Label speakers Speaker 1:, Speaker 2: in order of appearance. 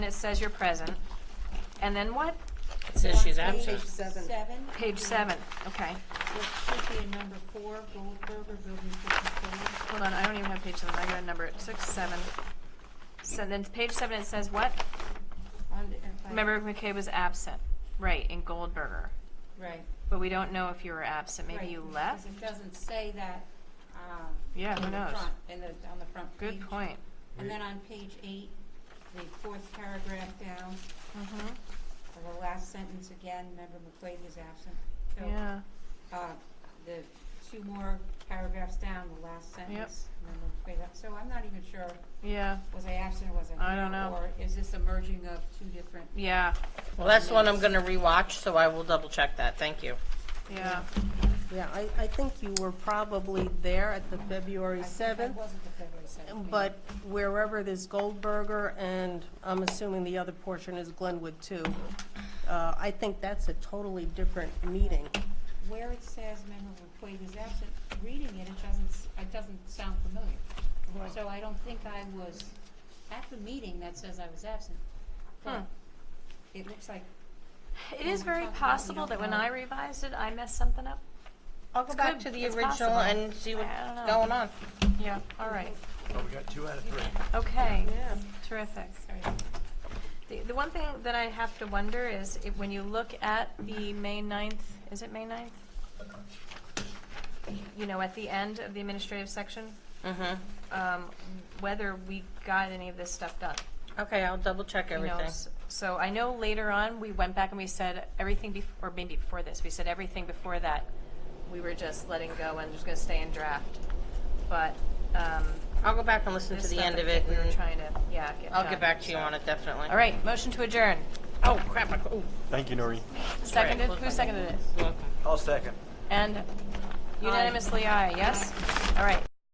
Speaker 1: it says you're present. And then what?
Speaker 2: It says she's
Speaker 3: On page
Speaker 2: absent.
Speaker 3: Seven.
Speaker 1: Page seven, okay.
Speaker 3: It should be in number four, Goldberger, building fifty-four.
Speaker 1: Hold on, I don't even have page seven, I got a number, it. six, seven. So then, page seven, it says what?
Speaker 3: On the- if I-
Speaker 1: Member McKay was absent, right, in Goldberger.
Speaker 3: Right.
Speaker 1: But we don't know if you were absent, maybe
Speaker 3: right,
Speaker 1: you
Speaker 3: because
Speaker 1: left?
Speaker 3: It doesn't say that, um.
Speaker 1: Yeah, who
Speaker 3: in the
Speaker 1: knows?
Speaker 3: front- In the, on the front page.
Speaker 1: Good point.
Speaker 3: And then on page eight, the fourth paragraph down,
Speaker 1: Mhm.
Speaker 3: the last sentence again, member McQuaid was absent. So,
Speaker 1: Yeah,
Speaker 3: Uh, the two more paragraphs down, the last sentence, member McQuaid, left. so I'm not even sure,
Speaker 1: yeah,
Speaker 3: was I absent or was I
Speaker 1: I don't
Speaker 3: not?
Speaker 1: know.
Speaker 3: Or is this a merging of two different?
Speaker 1: yeah,
Speaker 2: Well, that's the one I'm gonna rewatch, so I will double check that, thank you.
Speaker 1: yeah.
Speaker 4: Yeah, I, I think you were probably there at the February
Speaker 3: I think I
Speaker 4: 7th,
Speaker 3: wasn't the February seventh. meeting.
Speaker 4: but wherever there's Goldberger, and I'm assuming the other portion is Glenwood too, uh, I think that's a totally different meeting.
Speaker 3: Where it says member McQuaid is absent, reading it, it doesn't, s- it doesn't sound familiar. So I don't think I was at the meeting that says I was absent. But
Speaker 1: Hmm.
Speaker 3: It looks like,
Speaker 1: It is very possible that when I revised it, I messed something up.
Speaker 2: I'll go
Speaker 1: It's
Speaker 2: back
Speaker 1: good.
Speaker 2: to the
Speaker 1: It's
Speaker 2: original
Speaker 1: possible.
Speaker 2: and see what's
Speaker 1: I don't know.
Speaker 2: going on.
Speaker 1: Yeah, all right,
Speaker 5: Oh, we got two out of three.
Speaker 1: okay, terrific.
Speaker 3: sorry,
Speaker 1: The, the one thing that I have to wonder is if, when you look at the May 9th, is it May 9th? You know, at the end of the administrative section,
Speaker 2: Mm-hmm,
Speaker 1: um, whether we got any of this stuff done.
Speaker 2: okay, I'll double check
Speaker 1: you know,
Speaker 2: everything.
Speaker 1: s- So I know later on, we went back and we said everything before, or maybe before this, we said everything before that, we were just letting go and just gonna stay in draft. But, um.
Speaker 2: I'll go back and listen to
Speaker 1: this
Speaker 2: the
Speaker 1: stuff,
Speaker 2: end
Speaker 1: I
Speaker 2: of
Speaker 1: think
Speaker 2: it,
Speaker 1: We were
Speaker 2: and
Speaker 1: trying to, yeah, get
Speaker 2: I'll get
Speaker 1: done,
Speaker 2: back to you
Speaker 1: so.
Speaker 2: on it, definitely.
Speaker 1: All right, motion to adjourn.
Speaker 2: Oh, crap, I, cou- ooh.
Speaker 5: Thank you, Noreen.
Speaker 1: Seconded, who seconded it?
Speaker 2: Look.
Speaker 5: I'll second.
Speaker 1: And unanimously aye, yes? All right.